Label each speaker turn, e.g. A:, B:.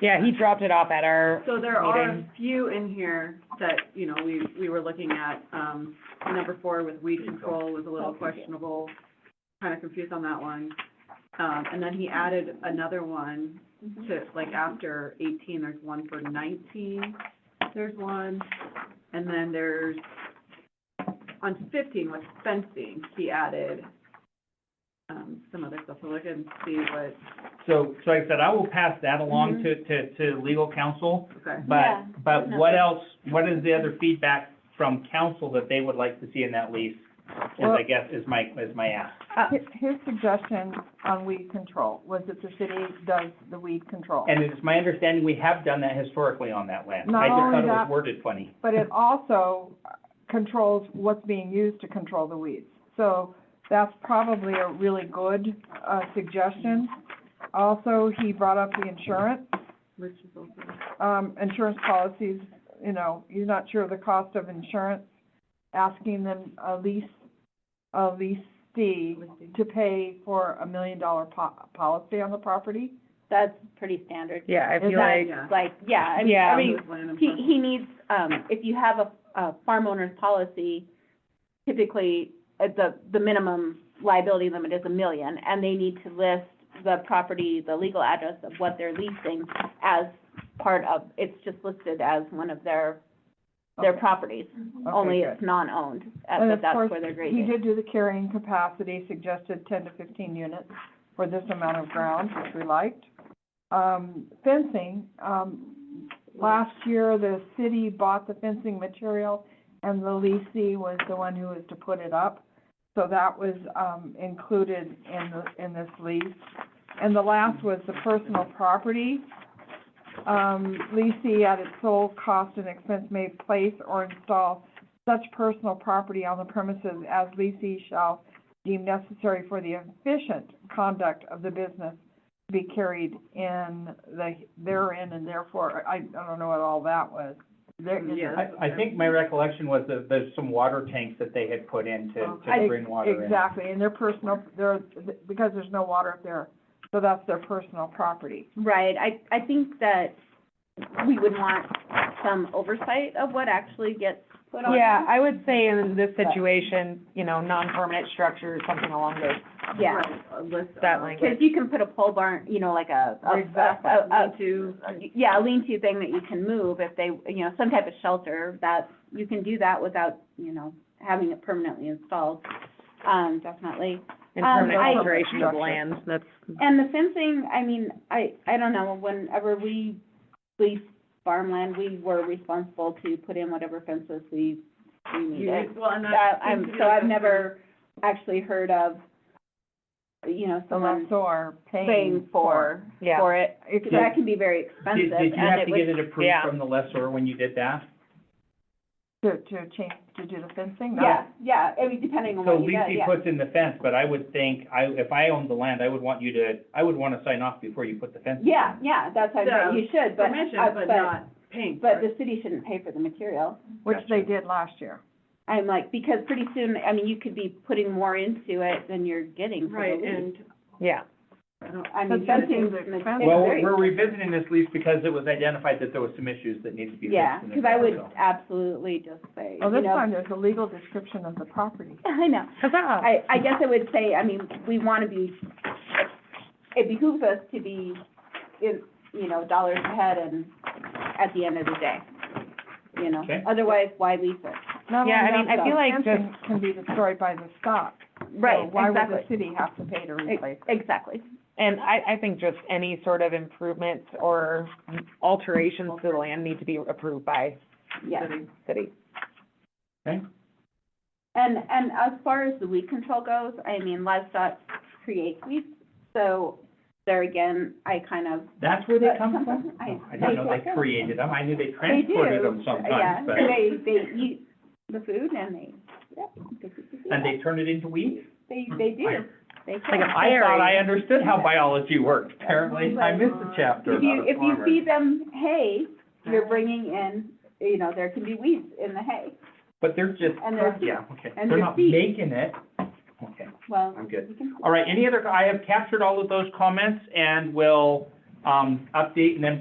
A: Yeah, he dropped it off at our,
B: So there are a
A: Meeting.
B: few in here that, you know, we, we were looking at, um, number four with weed control was a little questionable, kind of confused on that one. Um, and then he added another one to, like, after eighteen, there's one for nineteen, there's one, and then there's, on fifteen with fencing, he added, um, some other stuff, so look and see what,
C: So, so like I said, I will pass that along to, to, to legal counsel,
B: okay.
D: Yeah,
C: but, but
D: no.
C: what else, what is the other feedback from counsel that they would like to see in that lease? Is, I
E: Well-
C: guess, is my, is my ask.
E: His, his suggestion on weed control was that the city does the weed control.
C: And it's my understanding, we have done that historically on that land.
E: Not
C: I just
E: only
C: thought it was
E: that-
C: worded funny.
E: But it also controls what's being used to control the weeds. So that's probably a really good, uh, suggestion. Also, he brought up the insurance,
B: Which is also,
E: um, insurance policies, you know, he's not sure of the cost of insurance, asking them a lease, a leasee to pay for a million dollar po- policy on the property.
D: that's pretty standard.
A: yeah, I
E: Is
A: feel
E: that-
A: like,
B: yeah.
D: Like, yeah, I mean,
A: Yeah.
D: every,
B: Land and
D: he,
B: parcel.
D: he needs, um, if you have a, a farm owner's policy, typically, uh, the, the minimum liability limit is a million, and they need to list the property, the legal address of what they're leasing as part of, it's just listed as one of their, their
E: Okay.
D: properties,
E: Okay,
D: only
E: good.
D: it's non-owned, uh,
E: And
D: but
E: of
D: that's
E: course,
D: where they're
E: He
D: grading.
E: did do the carrying capacity, suggested ten to fifteen units for this amount of ground, which we liked. Um, fencing, um, last year, the city bought the fencing material, and the leasee was the one who was to put it up. So that was, um, included in the, in this lease. And the last was the personal property. Um, leasee at its sole cost and expense may place or install such personal property on the premises as leasee shall deem necessary for the efficient conduct of the business to be carried in the, therein and therefore, I, I don't know what all that was. There-
B: Yeah.
C: I, I think my recollection was that there's some water tanks that they had put in to, to
E: I-
C: bring water in.
E: Exactly, and their personal, their, because there's no water up there, so that's their personal property.
D: Right, I, I think that we would want some oversight of what actually gets put on.
A: yeah, I would say in this situation, you know, non-permanent structures, something along those,
D: Yeah,
B: Right, a list of-
A: that language.
D: because you can put a pole barn, you know, like a, a,
E: Exactly.
D: a- a-
B: Two,
D: yeah, a lean-to thing that you can move if they, you know, some type of shelter that, you can do that without, you know, having it permanently installed, um, definitely.
A: in
D: Um,
A: permanent
D: I-
A: alteration of
E: Structure.
A: land, that's,
D: And the fencing, I mean, I, I don't know, whenever we leased farmland, we were responsible to put in whatever fences we, we needed.
B: you, well, and
D: Uh,
B: that.
D: I'm,
B: seems to be
D: so
B: like
D: I've
B: some
D: never actually heard of, you know,
E: The
D: someone
E: lessor
D: Mm-hmm. paying for,
A: yeah.
D: for it.
E: If
D: So
E: you-
D: that can be very
C: Did,
D: expensive
C: did you
D: and
C: have
D: it
C: to get
D: would,
C: it approved
A: yeah.
C: from the lessor when you did that?
E: to, to change, to do the fencing, no.
D: yeah, yeah, I mean, depending on
C: So
D: what you got,
C: Lisi
D: yeah.
C: puts in the fence, but I would think, I, if I owned the land, I would want you to, I would wanna sign off before you put the fence. in.
D: Yeah, yeah, that's how
B: Yeah,
D: you should, but,
B: Permission,
D: uh,
B: but
D: but,
B: not paying for
D: but
B: it.
D: the city shouldn't pay for the material.
E: Which they
C: Gotcha.
E: did last year.
D: I'm like, because pretty soon, I mean, you could be putting more into it than you're getting for
B: Right,
D: the lease.
B: and
A: yeah.
B: I don't,
D: I
E: But
D: mean,
E: that
D: fencing,
E: is
D: it's
E: expensive.
C: Well,
D: very
C: we're revisiting this lease because it was identified that there was some issues that needed to be fixed.
D: Yeah,
C: in the
D: because I would
C: contract, so.
D: absolutely just say,
B: Oh,
E: Well,
D: you
E: this
D: know-
E: time there's a legal description of the property.
D: I know.
A: Huzzah.
D: I, I guess I would say, I mean, we want to be, it behooves us to be, in, you know, dollars ahead and at the end of the day, you know?
C: Okay.
D: Otherwise, why lease it?
E: Not
A: Yeah, I
E: only
A: mean,
E: Oh, that,
A: I feel
E: the
A: like just-
E: fencing Can be destroyed by the stock. So why would the city have to pay to replace? it?
D: Exactly.
A: And I, I think just any sort of improvements or alterations to the land need to be approved by
D: Yeah.
A: city.
D: And, and as far as the weed control goes, I mean, livestock create weeds, so there again, I kind of.
C: That's where they come from?
D: I-
C: Oh, I didn't know they created them, I knew they
D: They do,
C: transported them sometimes, but,
D: Yeah, they, they eat the food and they, yep. they eat the food.
C: and they turn it into weeds?
D: They, they do,
C: Fire.
D: they
A: Like
D: can.
A: a
C: Hmm. I thought I
A: fire.
C: understood how biology worked, apparently, I missed a chapter
D: If you,
C: about a
D: if you
C: farmer. Oh.
D: feed them hay, you're bringing in, you know, there can be weeds in the hay.
C: But they're just,
D: and they're-
C: yeah, okay,
D: and
C: they're
D: they're
C: not
D: seed.
C: making it, okay.
D: Well,
C: I'm good.
D: you can,
C: All right, any other, I have captured all of those comments and will, um, update and then